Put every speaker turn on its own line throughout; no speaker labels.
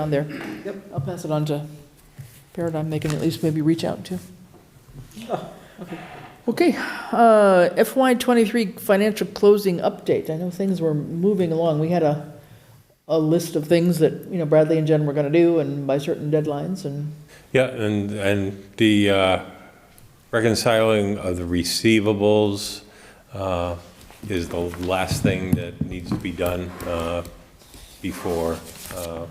down there. Yep. I'll pass it on to Paradigm, they can at least maybe reach out to. Oh, Okay, uh, FY '23 financial closing update, I know things were moving along, we had a, a list of things that, you know, Bradley and Jen were gonna do, and by certain deadlines, and,
Yeah, and, and the uh, reconciling of the receivables uh, is the last thing that needs to be done uh, before uh,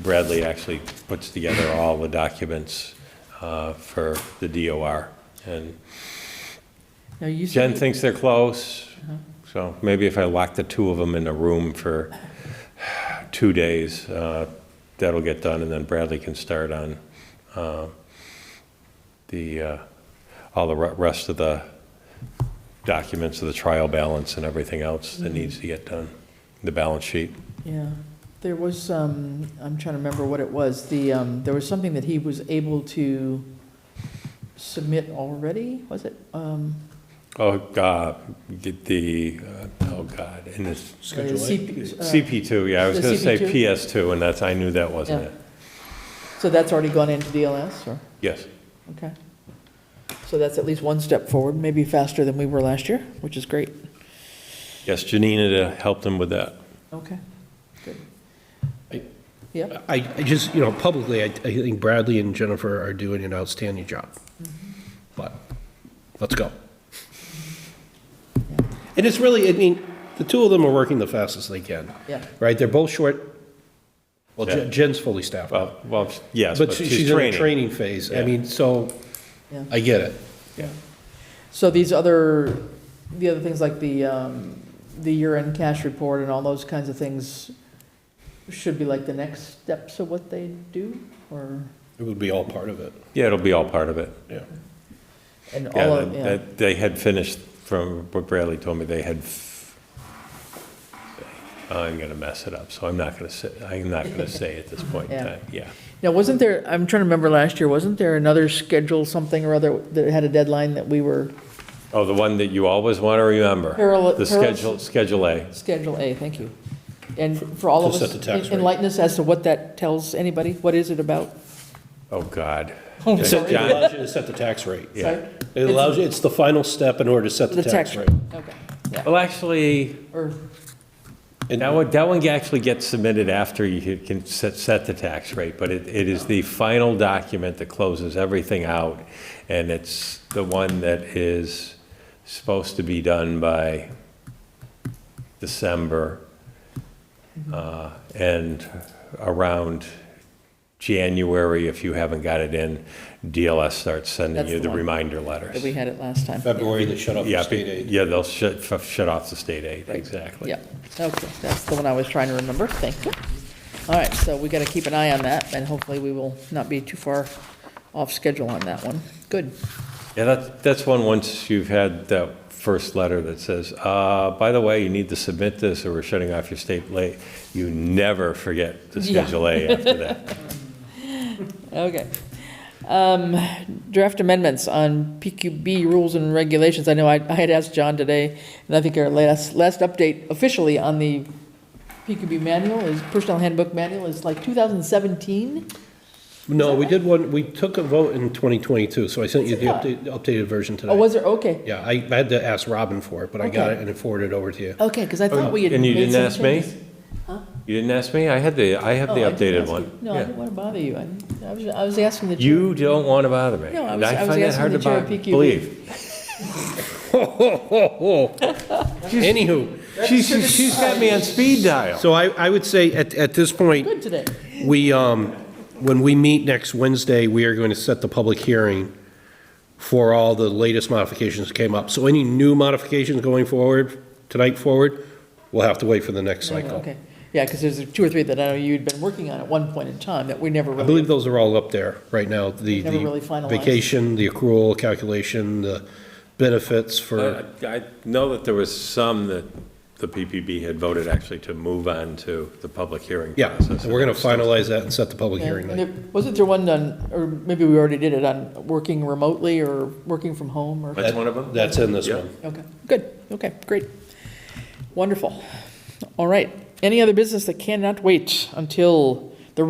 Bradley actually puts together all the documents uh, for the DOR. And
now you
Jen
said,
thinks they're close, so maybe if I lock the two of them in a room for two days, uh, that'll get done, and then Bradley can start on uh, the, uh, all the re- rest of the documents of the trial balance and everything else
Mm-hmm.
that needs to get done, the balance sheet.
yeah, there was, um, I'm trying to remember what it was, the, um, there was something that he was able to submit already, was it? Um,
Oh, God, get the, uh, oh, God, and it's
Schedule CP, uh,
CP2, yeah, I was
the
going to say
CP2?
PS2, and that's, I knew that wasn't
Yeah.
it.
So that's already gone into DLS, or,
Yes.
okay. So that's at least one step forward, maybe faster than we were last year, which is great.
Yes, Janina helped him with that.
Okay, good.
I-
Yep,
I, I just, you know, publicly, I, I think Bradley and Jennifer are doing an outstanding job. But, let's go. And it's really, I mean, the two of them are working the fastest they can,
yeah,
right? They're both short, well,
Yeah.
Jen- Jen's fully staffed. up,
Well, well, yes,
But she- she's in a training phase. I
Yeah.
mean, so,
yeah.
I get it.
So these other, the other things like the, um, the year-end cash report and all those kinds of things should be like the next steps of what they do, or,
It would be all part of it,
Yeah, it'll be all part of it.
yeah.
and all
Yeah,
of, yeah,
that, they had finished, from what Bradley told me, they had, f- I'm gonna mess it up, so I'm not gonna say, I'm not gonna say at this point in
Yeah.
time, yeah.
Now, wasn't there, I'm trying to remember last year, wasn't there another schedule, something or other, that had a deadline that we were,
Oh, the one that you always wanna remember?
Parallel-
The
parallel-
schedule, Schedule A.
Schedule A, thank you. And for all of
To set
us,
the tax
en-
rate.
enlighten us as to what that tells anybody, what is it about?
Oh, God.
Oh,
It
sorry.
allows you to set the tax rate.
Yeah.
Sorry?
It allows, you. it's the final step in order to set the tax rate.
Okay, yeah,
Well, actually,
or,
And-
that one, that one actually gets submitted after you can set, set the tax rate, but it, it is the final document that closes everything out, and it's the one that is supposed to be done by December, uh, and around January, if you haven't got it in, DLS starts sending
That's
you
the
the
one
reminder
that
letters.
we had it last time.
February, they shut off
Yeah,
the
be-
state aid.
Yeah, they'll shut, shut off the state aid, exactly.
Yeah, okay, that's the one I was trying to remember, thank you. All right, so we got to keep an eye on that, and hopefully we will not be too far off schedule on that one. Good,
Yeah, that's, that's one, once you've had that first letter that says, uh, by the way, you need to submit this or we're shutting off your state late, you never forget to
Yeah.
schedule A after that.
okay. Um, Draft amendments on PQB rules and regulations, I know I I had asked John today, and I think our last, last update officially on the PQB manual is, personnel handbook manual is like 2017?
No, we did one, we took a vote in 2022, so I sent you the
Yeah.
update- updated version today.
Oh, was there, okay,
Yeah, I I had to ask Robin for it, but I got
Okay.
it and it forwarded over to you.
okay, because I thought we had
Oh, And you
made
didn't
some
ask me?
changes.
You didn't ask me? I had the, I have
Oh,
the
I didn't
updated
ask you.
one.
No, I
Yeah.
didn't want to bother you. I didn't- I was, I was asking the.
You don't want to bother me.
No, I
And
was- I was
find that
asking
hard
the
to
chair
bo-
of PQB.
Believe.
Anywho,
She's, she's- she's got me on speed dial.
so I I would say at at this point,
Good today.
we, um, when we meet next Wednesday, we are going to set the public hearing for all the latest modifications that came up. So any new modifications going forward, tonight forward, we'll have to wait for the next cycle.
Okay. Yeah, because there's two or three that I know you'd been working on at one point in time that we never
I
really.
believe those are all up there right now, the
Never really
the
finalized.
vacation, the accrual calculation, the benefits
Uh,
for,
I know that there was some that the PPB had voted actually to move on to the public hearing
yeah,
process.
we're going to finalize that and set the public
Yeah,
hearing
and
night.
there- Wasn't there one on, or maybe we already did it on working remotely or working from home or?
That's one of them?
That's in this
Yeah.
one.
Okay, good. Okay, great. Wonderful. All right. Any other business that cannot wait until